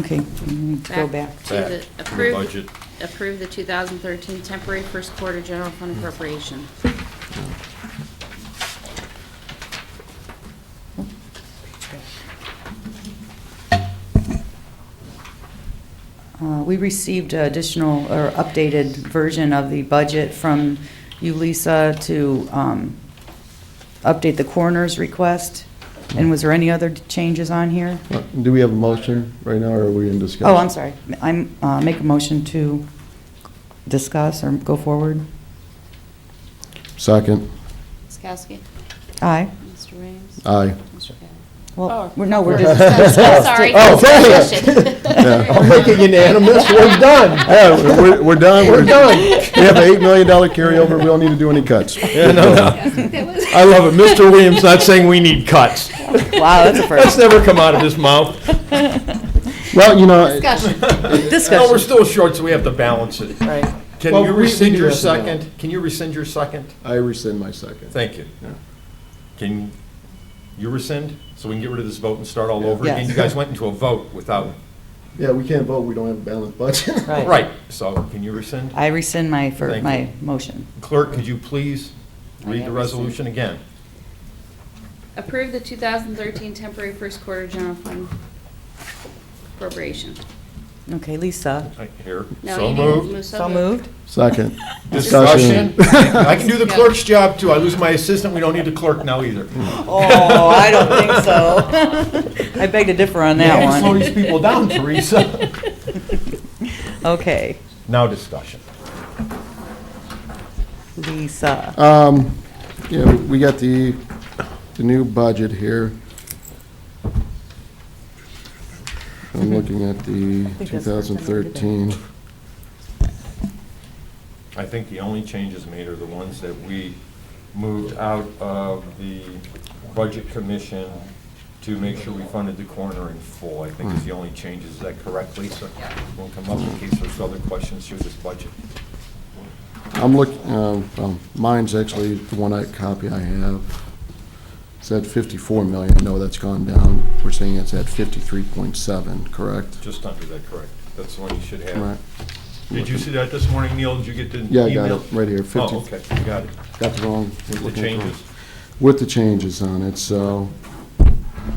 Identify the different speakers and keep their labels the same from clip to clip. Speaker 1: Okay, we need to go back.
Speaker 2: to
Speaker 3: Back
Speaker 2: the-
Speaker 3: to the
Speaker 2: approve-
Speaker 3: budget.
Speaker 2: Approve the 2013 temporary first quarter general fund appropriation.
Speaker 1: Uh, We received additional or updated version of the budget from you, Lisa, to um, update the coroner's request. And was there any other changes on here?
Speaker 4: Uh, Do we have a motion right now, or are we in discussion?
Speaker 1: Oh, I'm sorry. I'm, uh, make a motion to discuss or go forward.
Speaker 4: Second.
Speaker 2: Ms. Kowski?
Speaker 1: Aye.
Speaker 2: Mr. Williams?
Speaker 4: Aye.
Speaker 2: Mr. Kayla?
Speaker 1: Well, we're- no, we're
Speaker 2: We're
Speaker 1: just
Speaker 2: discussing- Oh. Sorry.
Speaker 4: Oh,
Speaker 2: discussion.
Speaker 4: I'll
Speaker 5: I'll make it unanimous, we're done.
Speaker 4: Yeah, we're, we're done.
Speaker 5: We're done.
Speaker 4: We have an eight million dollar carryover, we don't need to do any cuts.
Speaker 5: Yeah, no, no. I love it. Mr. Williams not saying we need cuts.
Speaker 1: Wow, that's a
Speaker 5: That's
Speaker 1: first.
Speaker 5: never come out of his mouth.
Speaker 4: Well, you know,
Speaker 2: Discussion.
Speaker 5: No, we're
Speaker 1: Discussion,
Speaker 5: still short, so we have to balance it.
Speaker 1: right.
Speaker 5: Can
Speaker 4: Well,
Speaker 5: you
Speaker 4: we- we
Speaker 5: rescind
Speaker 4: do
Speaker 5: your
Speaker 4: have to balance.
Speaker 5: second? Can you rescind your second?
Speaker 4: I rescind my second.
Speaker 5: Thank you.
Speaker 4: Yeah.
Speaker 5: Can you rescind, so we can get rid of this vote and start all over
Speaker 1: Yes.
Speaker 5: again? You guys went into a vote without,
Speaker 4: Yeah, we can't vote, we don't have a balanced budget.
Speaker 1: Right.
Speaker 5: right, so can you rescind?
Speaker 1: I rescind my, fir-
Speaker 5: Thank
Speaker 1: my
Speaker 5: you.
Speaker 1: motion.
Speaker 5: Clerk, could you please
Speaker 2: I
Speaker 5: read the
Speaker 2: have
Speaker 5: resolution again?
Speaker 2: Approve the 2013 temporary first quarter general fund appropriation.
Speaker 1: Okay, Lisa.
Speaker 5: Right Here,
Speaker 2: No,
Speaker 5: so
Speaker 2: you didn't
Speaker 5: moved.
Speaker 2: move,
Speaker 1: So moved?
Speaker 4: Second.
Speaker 5: Discussion. I can do the clerk's job too. I lose my assistant, we don't need the clerk now either.
Speaker 1: Oh, I don't think so. I beg to differ on
Speaker 5: You
Speaker 1: that
Speaker 5: can Slow
Speaker 1: one.
Speaker 5: these people down, Teresa.
Speaker 1: Okay,
Speaker 5: Now discussion.
Speaker 1: Lisa.
Speaker 4: Um, yeah, we got the, the new budget here. I'm looking at the
Speaker 1: think
Speaker 4: two
Speaker 1: that's the first time
Speaker 4: thousand
Speaker 1: Mm-hmm. I did that.
Speaker 4: thirteen.
Speaker 5: I think the only changes made are the ones that we moved out of the Budget Commission to make sure we funded the corner in full, I think is the only change. Is that correct, Lisa? We'll come up in case there's other questions through this budget.
Speaker 4: I'm looking, well, mine's actually the one I, copy I have. It's at 54 million. I know that's gone down. We're saying it's at 53.7, correct?
Speaker 5: Just under that, correct? That's the one you should
Speaker 4: Right.
Speaker 5: have. Did you see that this morning, Neil? Did you get the
Speaker 4: Yeah, I got
Speaker 5: email?
Speaker 4: it, right here, 50.
Speaker 5: Oh, okay, you got it.
Speaker 4: Got the wrong.
Speaker 5: With the
Speaker 4: looking at wrong-
Speaker 5: changes?
Speaker 4: With the changes on it, so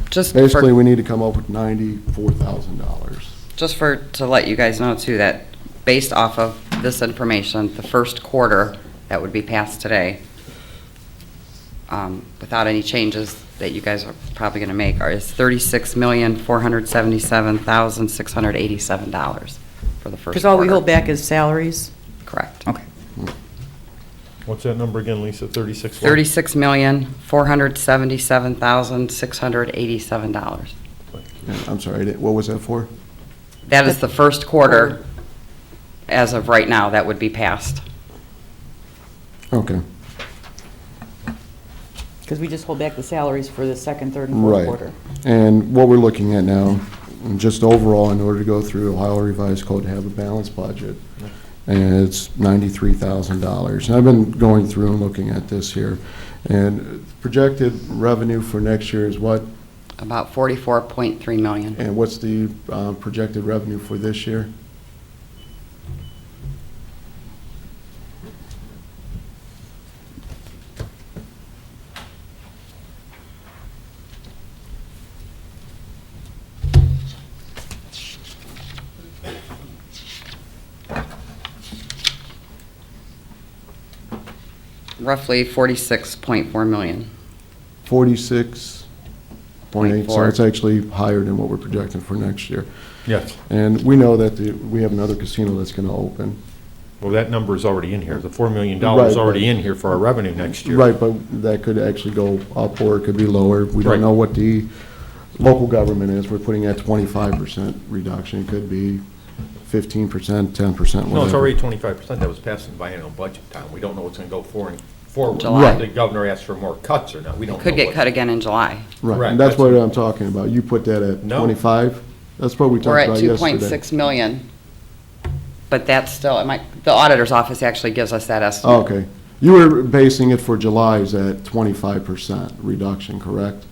Speaker 6: Just
Speaker 4: basically,
Speaker 6: for,
Speaker 4: we need to come up with $94,000.
Speaker 6: just for, to let you guys know too, that based off of this information, the first quarter that would be passed today, um, without any changes that you guys are probably gonna make, are, is thirty-six million, four hundred seventy-seven thousand, six hundred eighty-seven dollars for the first quarter.
Speaker 1: Because all we hold back is salaries.
Speaker 6: Correct.
Speaker 1: Okay.
Speaker 5: What's that number again, Lisa? Thirty-six? what?
Speaker 6: Thirty-six million, four hundred seventy-seven thousand, six hundred eighty-seven dollars.
Speaker 4: Yeah, I'm sorry, I didn't- what was that for?
Speaker 6: That is the first quarter, as of right now, that would be passed.
Speaker 4: Okay,
Speaker 1: Because we just hold back the salaries for the second, third, and fourth
Speaker 4: right.
Speaker 1: quarter.
Speaker 4: And what we're looking at now, and just overall, in order to go through Ohio Revised Code to have a balanced budget, and it's ninety-three thousand dollars. And I've been going through and looking at this here, and projected revenue for next year is what,
Speaker 6: About forty-four point three million.
Speaker 4: and what's the uh, projected revenue for this year?
Speaker 6: Roughly forty-six point four million.
Speaker 4: Forty-six point eight, so
Speaker 6: Point
Speaker 4: it's
Speaker 6: four.
Speaker 4: actually higher than what we're projecting for next year.
Speaker 5: Yes.
Speaker 4: And we know that the, we have another casino that's gonna open.
Speaker 5: Well, that number is already in here. The $4 million is
Speaker 4: Right.
Speaker 5: already in here for our revenue next year.
Speaker 4: Right, but that could actually go up or it could be lower. We
Speaker 5: Right.
Speaker 4: don't know what the local government is. We're putting at twenty-five percent reduction. It could be fifteen percent, ten percent, whatever.
Speaker 5: No, it's already 25% that was passed in biennial budget time. We don't know what's going to go for- forward.
Speaker 6: July.
Speaker 4: Right.
Speaker 5: The governor asked for more cuts or not. We don't know.
Speaker 6: Could get
Speaker 5: what-
Speaker 6: cut again in July.
Speaker 4: Right,
Speaker 5: Correct,
Speaker 4: and that's
Speaker 5: that's
Speaker 4: what
Speaker 5: what-
Speaker 4: I'm talking about. You put that at
Speaker 5: No.
Speaker 4: twenty-five? That's what we
Speaker 6: We're
Speaker 4: talked
Speaker 6: at
Speaker 4: about
Speaker 6: two
Speaker 4: yesterday.
Speaker 6: point six million. But that's still, it might, the auditor's office actually gives us that estimate.
Speaker 4: Okay. You were basing it for July's at twenty-five percent reduction, correct?